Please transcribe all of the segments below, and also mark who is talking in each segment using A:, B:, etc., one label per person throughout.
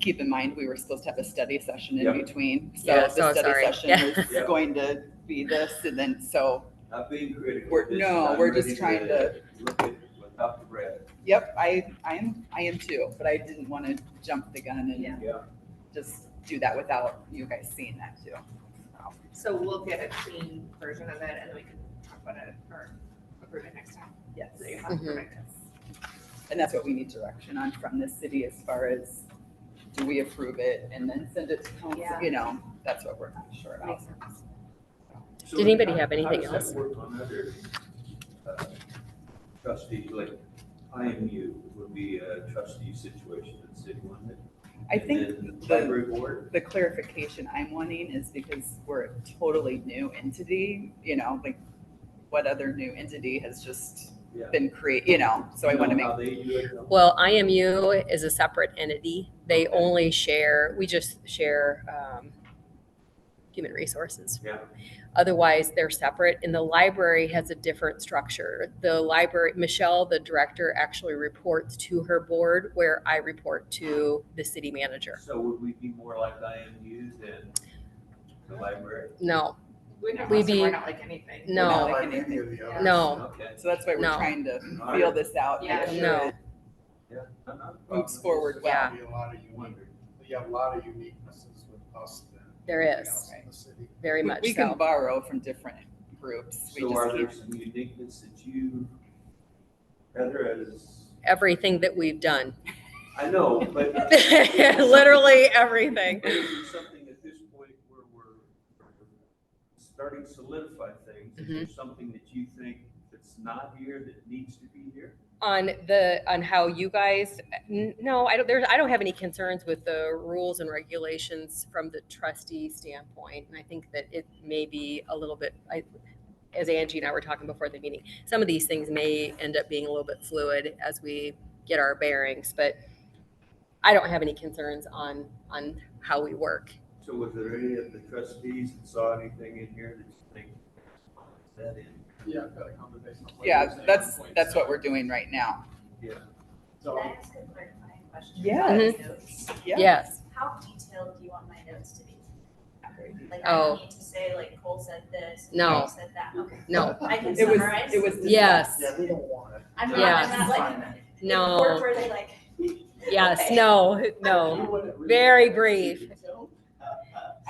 A: keep in mind, we were supposed to have a study session
B: Yeah.
A: in between. So
C: Yeah,
A: the
C: so
A: study
C: sorry.
A: session
C: Yeah.
A: is
B: Yeah.
A: going to be this and then, so,
B: Not being critical.
A: We're-
B: just
A: no,
B: I'm
A: we're just
B: ready
A: trying to-
B: Look at without the breath.
A: yep, I, I am, I am too, but I didn't want to jump the gun
D: Yeah.
A: and
B: Yeah.
A: just do that without you guys seeing that too. So,
D: So we'll get a clean version of it and then we can talk about it or approve it next time.
A: Yes,
D: So you have to
C: Mhm.
D: correct us.
A: and that's what we need direction on from the city as far as, do we approve it and then send it to council,
D: Yeah.
A: you know, that's what we're not sure
D: That
A: about.
D: Makes sense.
B: So
C: Did anybody
B: how-
C: have anything
B: How does
C: else?
B: that work on other uh, trustees, like IMU would be a trustee situation in city one?
A: I think
B: And then
A: the-
B: Library board,
A: the clarification I'm wanting is because we're a totally new entity, you know, like what other new entity has just
B: yeah.
A: been created, you know, so I
B: You
A: want to
B: know
A: make,
B: How they do it?
C: Well, IMU is a separate entity. They
B: Okay.
C: only share, we just share um, human resources.
B: Yeah.
C: Otherwise, they're separate. And the library has a different structure. The library, Michelle, the director, actually reports to her board where I report to the city manager.
B: So would we be more like IMU than the library?
C: No,
D: We're not,
C: We
D: we're
C: be-
D: not like anything.
C: No.
A: We're not
B: Like
A: like
B: any
A: anything.
B: of the others?
C: No.
B: Okay.
A: so that's why we're
C: No.
A: trying to
B: All
A: feel
B: right.
A: this out,
D: Yeah,
A: make
C: No.
A: sure it
B: Yeah. Not a problem.
A: moves forward
C: Yeah.
A: well.
E: Be a lot of unique, you have a lot of uniquenesses with us than.
C: There
E: anything
C: is.
E: else in the city.
C: very
A: We-
C: much
A: We can
C: so.
A: borrow from different groups. We
B: So are there
A: just
B: some uniqueness that you, Heather, as,
C: Everything that we've done,
B: I know, but.
C: literally everything.
B: But is it something at this point where we're starting to solidify things? Is
C: Mm-hmm.
B: there something that you think that's not here that needs to be here?
C: on the, on how you guys, n- no, I don't, there's, I don't have any concerns with the rules and regulations from the trustee standpoint. And I think that it may be a little bit, I, as Angie and I were talking before the meeting, some of these things may end up being a little bit fluid as we get our bearings, but I don't have any concerns on, on how we work.
B: So was there any of the trustees that saw anything in here that you think is that in?
E: Yeah, I've got a conversation. with
A: can, yeah,
E: Wednesday
A: that's,
E: on point
A: that's what
E: seven.
A: we're doing right now.
D: Can
E: So,
F: I ask a clarifying question?
A: Yeah.
F: about
C: Mm-hmm.
F: my notes?
A: Yeah.
C: Yes,
F: How detailed do you want my notes to be? Like, I
C: Oh.
F: don't need to say, like, Cole said this.
C: No.
F: Cole Said that, okay.
C: no,
F: I can
A: It was,
F: summarize.
A: it was.
C: yes,
E: yeah, we don't want it.
F: I'm not,
C: Yeah.
F: I'm not like.
C: no,
F: Or were they like?
C: yes,
F: Okay.
C: no, no.
E: You wouldn't really
C: Very
E: want it.
C: brief.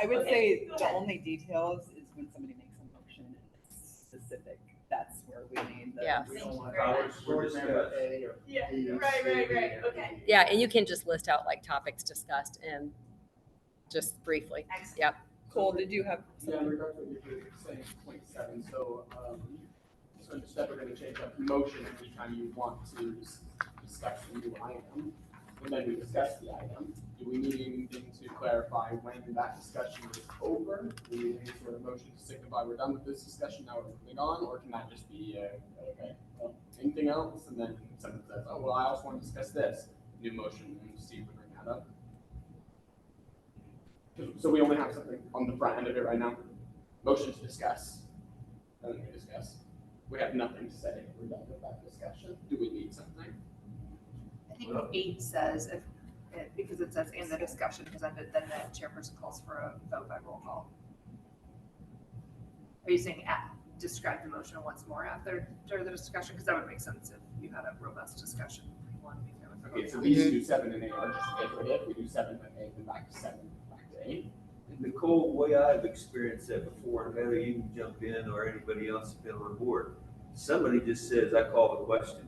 A: I would
F: Okay,
A: say
F: go
A: the
F: ahead.
A: only details is when somebody makes a motion and it's specific, that's where we need the.
C: Yes.
E: We don't want
F: Thank you very
E: it.
B: much.
E: Board member A or
F: Yeah,
E: B or
F: right, right,
E: C
F: right,
E: or
F: okay.
E: D. E.
C: Yeah, and you can just list out like topics discussed and just briefly.
F: Excellent.
C: Yep.
A: Cole, did you have
E: Yeah,
A: something?
E: in regards to what you were saying, point seven, so, um, so instead we're gonna change up motion every time you want to s- discuss a new item. And then we discuss the item, do we need anything to clarify when that discussion is over? Do we need any sort of motion to signify we're done with this discussion, now we're moving on, or can that just be, uh, okay, well, anything else? And then someone says, oh, well, I also wanna discuss this, new motion, and Steve would bring that up. So we only have something on the front end of it right now. Motion to discuss. And then we discuss. We have nothing to say. We're done with that discussion. Do we need something?
D: I think eight says if, it- because it says in the discussion presented, then the chairperson calls for a vote by roll call. Are you saying at, describe the motion once more after, during the discussion? Because that would make sense if you had a robust discussion. You want to be there with the
E: Okay, so
D: vote.
E: these two, seven and eight, are just iterative. We do seven and eight, then back to seven, back to eight.
B: Nicole, the way I've experienced that before, and Heather, you can jump in or anybody else that's been on board. Somebody just says, I call the question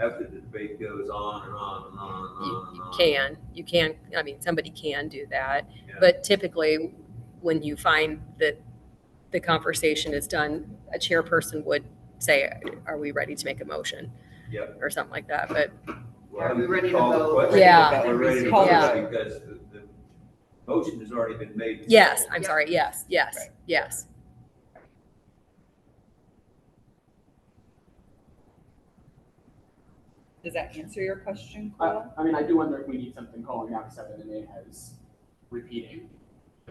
B: after the debate goes on and on and on and
C: You,
B: on and
C: you
B: on.
C: can, you can, I mean, somebody can do that.
B: Yeah.
C: But typically, when you find that the conversation is done, a chairperson would say, are we ready to make a motion?
B: Yep.
C: Or something like that, but
B: Well,
D: Are we ready to
B: call the
D: vote?
B: question.
C: Yeah.
B: We're ready to
A: Call the
B: vote
A: vote.
B: because the, the motion has already been made.
C: yes, I'm
D: Yep.
C: sorry, yes, yes,
A: Right.
C: yes.
A: Does that answer your question,
E: I,
A: Cole?
E: I mean, I do wonder if we need something calling out seven and eight as repeating.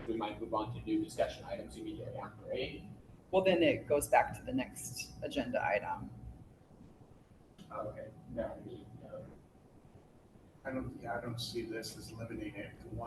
E: We might move on to new discussion items immediately after eight.
A: Well, then it goes back to the next agenda item.
E: Okay, that would be, uh,
G: I don't, yeah, I don't see this as limiting it to one